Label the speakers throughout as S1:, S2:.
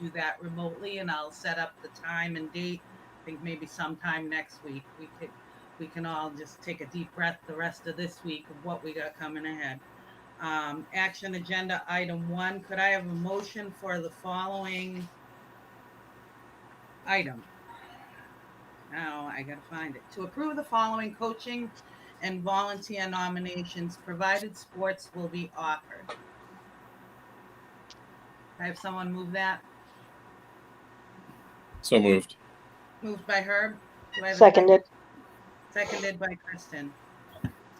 S1: do that remotely and I'll set up the time and date. I think maybe sometime next week, we could, we can all just take a deep breath the rest of this week of what we got coming ahead. Um, action agenda item one, could I have a motion for the following item? Now I gotta find it. To approve the following coaching and volunteer nominations, provided sports will be offered. I have someone move that.
S2: So moved.
S1: Moved by Herb. Do I have a
S3: Seconded.
S1: Seconded by Kristen.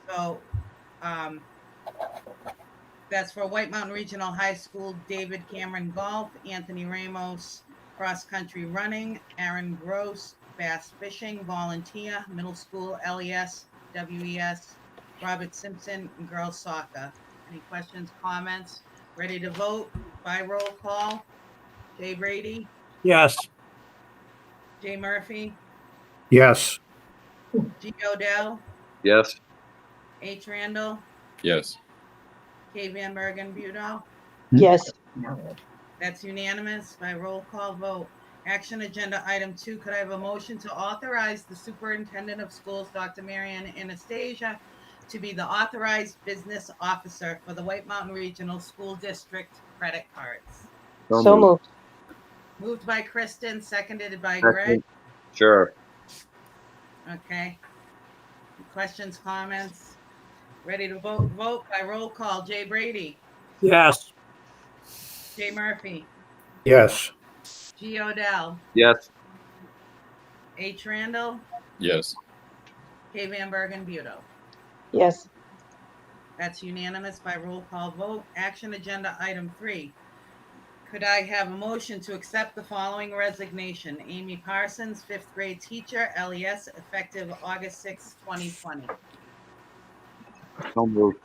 S1: So, um, that's for White Mountain Regional High School, David Cameron Golf, Anthony Ramos, Cross Country Running, Aaron Gross, Bass Fishing, Volunteer, Middle School, E LES, WES, E Robert Simpson, and Girls Soccer. Any questions, comments? Ready to vote by roll call? Jay Brady,
S4: Yes.
S1: Jay Murphy,
S4: Yes.
S1: G. Odell,
S5: Yes.
S1: H. Randall,
S2: Yes.
S1: K. Van Bergen Budo.
S3: yes,
S1: That's unanimous by roll call vote. Action agenda item two, could I have a motion to authorize the superintendent of schools, Dr. Marian Anastasia, to be the authorized business officer for the White Mountain Regional School District credit cards?
S3: so moved,
S1: Moved by Kristen, seconded by Greg.
S5: Second. Sure.
S1: Okay. Questions, comments? Ready to vote, vote by roll call. Jay Brady,
S4: Yes.
S1: Jay Murphy,
S4: Yes.
S1: G. Odell,
S5: Yes.
S1: H. Randall,
S2: Yes.
S1: K. Van Bergen Budo.
S3: yes,
S1: That's unanimous by roll call vote. Action agenda item three. Could I have a motion to accept the following resignation? Amy Parsons, fifth grade teacher, LES, effective August sixth, twenty twenty.
S5: So moved.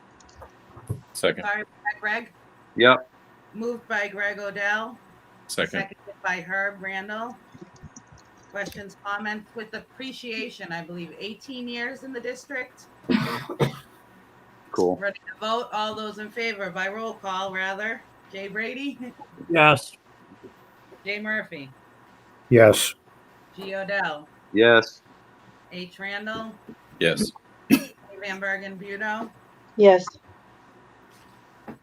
S2: Second.
S1: Sorry, was that Greg,
S5: Yep.
S1: moved by Greg Odell,
S2: Second.
S1: seconded by Herb Randall. Questions, comments with appreciation, I believe eighteen years in the district.
S5: Cool.
S1: Ready to vote? All those in favor by roll call, rather. Jay Brady,
S4: Yes.
S1: Jay Murphy,
S4: Yes.
S1: G. Odell,
S5: Yes.
S1: H. Randall,
S2: Yes.
S1: Van Bergen Budo.
S3: yes,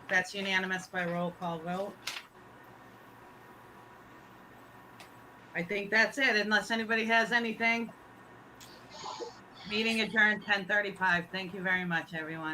S1: That's unanimous by roll call vote. I think that's it, unless anybody has anything. Meeting adjourned ten thirty-five. Thank you very much, everyone.